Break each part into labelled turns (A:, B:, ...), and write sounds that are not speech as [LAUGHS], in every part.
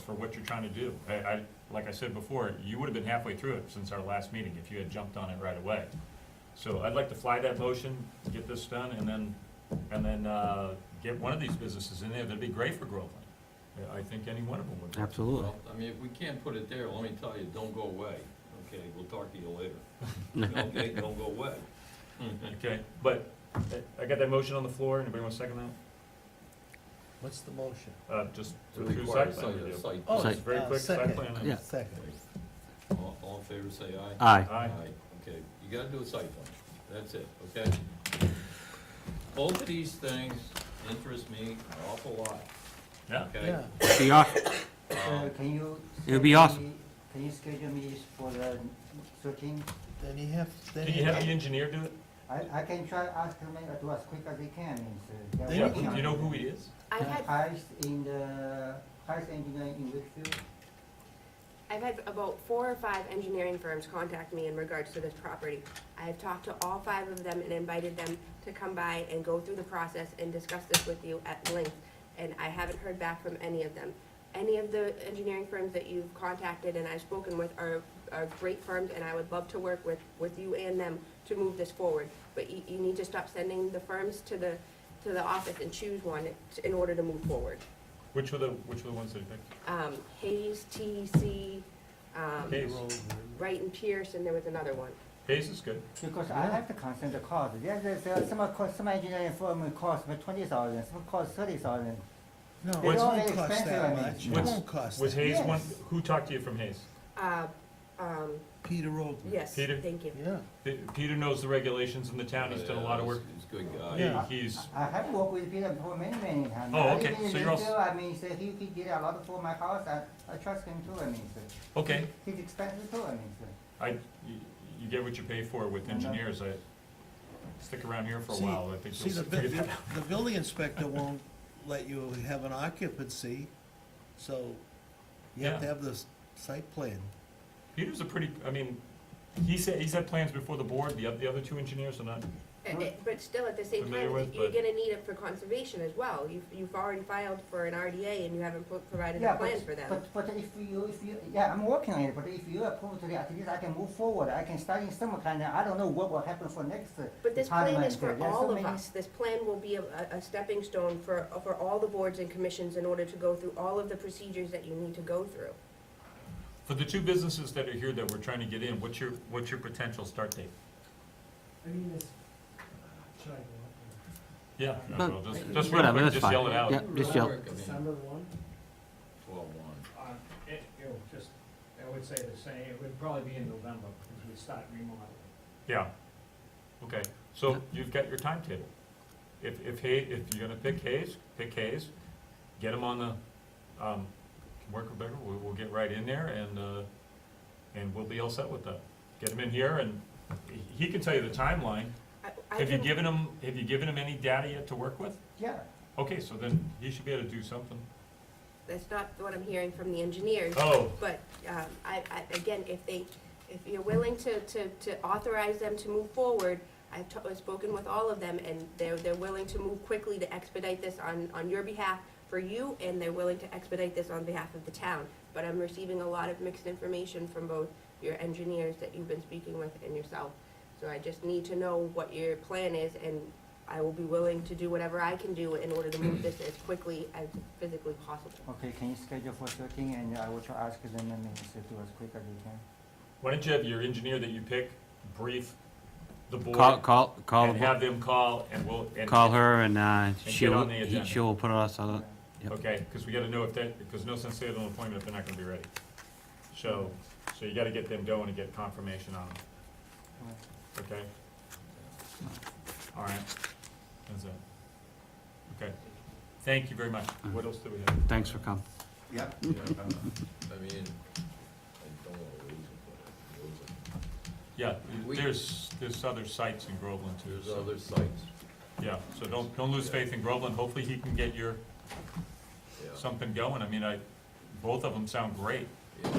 A: for what you're trying to do. I, I, like I said before, you would have been halfway through it since our last meeting if you had jumped on it right away. So I'd like to fly that motion, get this done, and then, and then, uh, get one of these businesses in there. That'd be great for Groveland. I- I think any one of them would. be.
B: Absolutely.
C: Well, I mean, if we can't put it there, let me tell you, don't go away, okay? We'll talk to you [LAUGHS] later. Okay, don't go away.
A: Okay, but uh, I got that motion on the floor. Anybody want to second
D: What's the motion?
A: that? Uh, just
C: To
A: to approve
C: require
A: site plan
C: site-
A: review.
C: site-
D: Oh,
B: Site-
A: very
D: uh,
A: quick, site
D: second,
A: plan.
B: Yeah.
D: Second.
C: All, all in favor, say aye.
B: Aye.
A: Aye.
C: Okay, you gotta do a site plan, that's it, okay? Both of these things interest me an awful lot,
A: Yeah,
C: okay? Um,
D: Yeah,
B: Be awesome.
E: So Oh, can you?
B: It would be
E: schedule
B: awesome.
E: me- Can you schedule me for the thirteen?
D: then you have, then
A: can you
D: you
A: have the engineer do it?
E: I, I can try ask him to as quick as he can, uh, and so. that
D: Yeah,
A: Yeah,
E: we can-
A: do you know who he is?
F: I've had,
E: Highest in the, highest engineer in Wakefield.
F: I've had about four or five engineering firms contact me in regards to this property. I have talked to all five of them and invited them to come by and go through the process and discuss this with you at length, and I haven't heard back from any of them. Any of the engineering firms that you've contacted and I've spoken with are, are great firms, and I would love to work with, with you and them to move this forward. But you, you need to stop sending the firms to the, to the office and choose one in order to move forward.
A: Which were the, which were the ones that he picked?
F: um, Hayes, TEC, um,
A: Hayes.
F: Wright and Pierce, and there was another one.
A: Hayes is good.
E: Because I have to consider the cost. There's, there's uh, some, of cost- some engineering firm will cost me twenty thousand, some cost thirty thousand.
D: No, it
A: What's-
D: won't cost that
E: What's-
D: much, it
A: what's-
D: won't cost
A: Was
D: that.
A: Hayes one,
E: Yes.
A: who talked to you from Hayes?
F: Uh, um,
D: Peter Oldman.
F: yes,
A: Peter?
F: thank you.
D: Yeah,
A: Pe- Peter knows the regulations in the town, he's done a lot of work.
C: He's a good guy.
A: He-
D: Yeah.
A: He's,
E: I I have worked with Peter for many, many times.
A: Oh, okay.
E: Even in
A: So you're also-
E: Wakefield, I mean, so he, he did a lot for my house, I, I trust him too, I mean, so.
A: okay,
E: He's expensive too, I mean, so.
A: I, you- you get what you pay for with engineers, I, stick around here for a
D: See-
A: while, I think
D: see,
A: you'll
D: the,
A: see-
D: bu-
A: figure that out.
D: the building inspector won't let you have an occupancy, so you have to
A: Yeah.
D: have this site plan.
A: [LAUGHS] Peter's a pretty, I mean, he said, he's had plans before the board, the, oth- the other two engineers are not,
F: And it- But still, at the same
A: Familiar
F: time,
A: with,
F: you're
A: but-
F: gonna need it for conservation as well. You've, you've already filed for an RDA and you haven't pro- provided
E: Yeah,
F: a plan for them.
E: But, but if you, if you, yeah, I'm working on it, but if you approve today, at least I can move forward, I can start in some kind of, I don't know what will happen for next. uh,
F: But this plan
E: parliament.
F: is for
E: There's so
F: all of
E: many-
F: us. This plan will be a, a- a stepping stone for, for all the boards and commissions in order to go through all of the procedures that you need to go through.
A: for the two businesses that are here that we're trying to get in, what's your, what's your potential start date?
G: I mean, it's, uh, should I go
A: Yeah,
B: No,
A: well, just, just real
B: whatever,
A: quick,
B: that's
A: just
B: fine.
A: yell it out.
B: Yeah,
C: Real
B: just yell.
C: quick,
G: up
C: I
G: there?
C: mean,
G: December one?
C: 12-1.
G: Uh, it, it would just, I would say the same, it would probably be in November, because we start remodeling.
A: Yeah, okay, so you've got your timetable. If, if Hay, if you're gonna pick Hayes, pick Hayes, get him on the, um, can work with Becker, we'll, we'll get right in there and, uh, and we'll be all set with that. Get him in here and he- he can tell you the timeline.
F: I- I
A: Have you
F: can-
A: given him, have you given him any data yet to work with?
E: Yeah,
A: Okay, so then he should be able to do something.
F: That's not what I'm hearing from the engineers.
A: Oh,
F: But, um, I, I, again, if they, if you're willing to, to, to authorize them to move forward, I've t- I've spoken with all of them, and they're, they're willing to move quickly to expedite this on, on your behalf for you, and they're willing to expedite this on behalf of the town. But I'm receiving a lot of mixed information from both your engineers that you've been speaking with and yourself. So I just need to know what your plan is, and I will be willing to do whatever I can do in order to move this as quickly as physically possible.
E: okay, can you schedule for thirteen, and I will try ask them, I mean, so do as quick as we can.
A: why don't you have your engineer that you pick brief the board?
B: Call, call, call,
A: And have them call and we'll. and-
B: call her and, uh,
A: get
B: she'll,
A: on the
B: he-
A: agenda.
B: she'll put us on, Yep.
A: Okay, because we gotta know if that, because no sense saying an appointment if they're not gonna be ready. So, so you gotta get them going and get confirmation on them,
E: Yeah.
A: okay? All right, that's it. Okay, thank you very much.
C: Uh-huh.
A: What else do we have?
B: thanks for coming.
C: Yeah, I mean, I don't wanna lose it, but I could lose it.
A: Yeah,
C: We-
A: there's, there's other sites in Groveland too,
C: There's
A: so,
C: other sites,
A: yeah, so don't, don't lose faith in Groveland. Hopefully he can get your,
C: yeah.
A: something going. I mean, I, both of them sound great.
C: Yeah.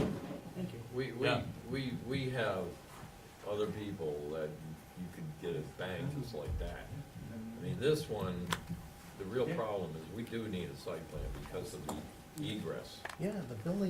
G: Thank you.
C: We, we,
A: Yeah.
C: we, we have other people that you could get a bang
G: Mm-hmm.
C: just like that. I mean, this one, the real
G: Yeah.
C: problem is we do need a site plan because of the egress.
D: Yeah, the building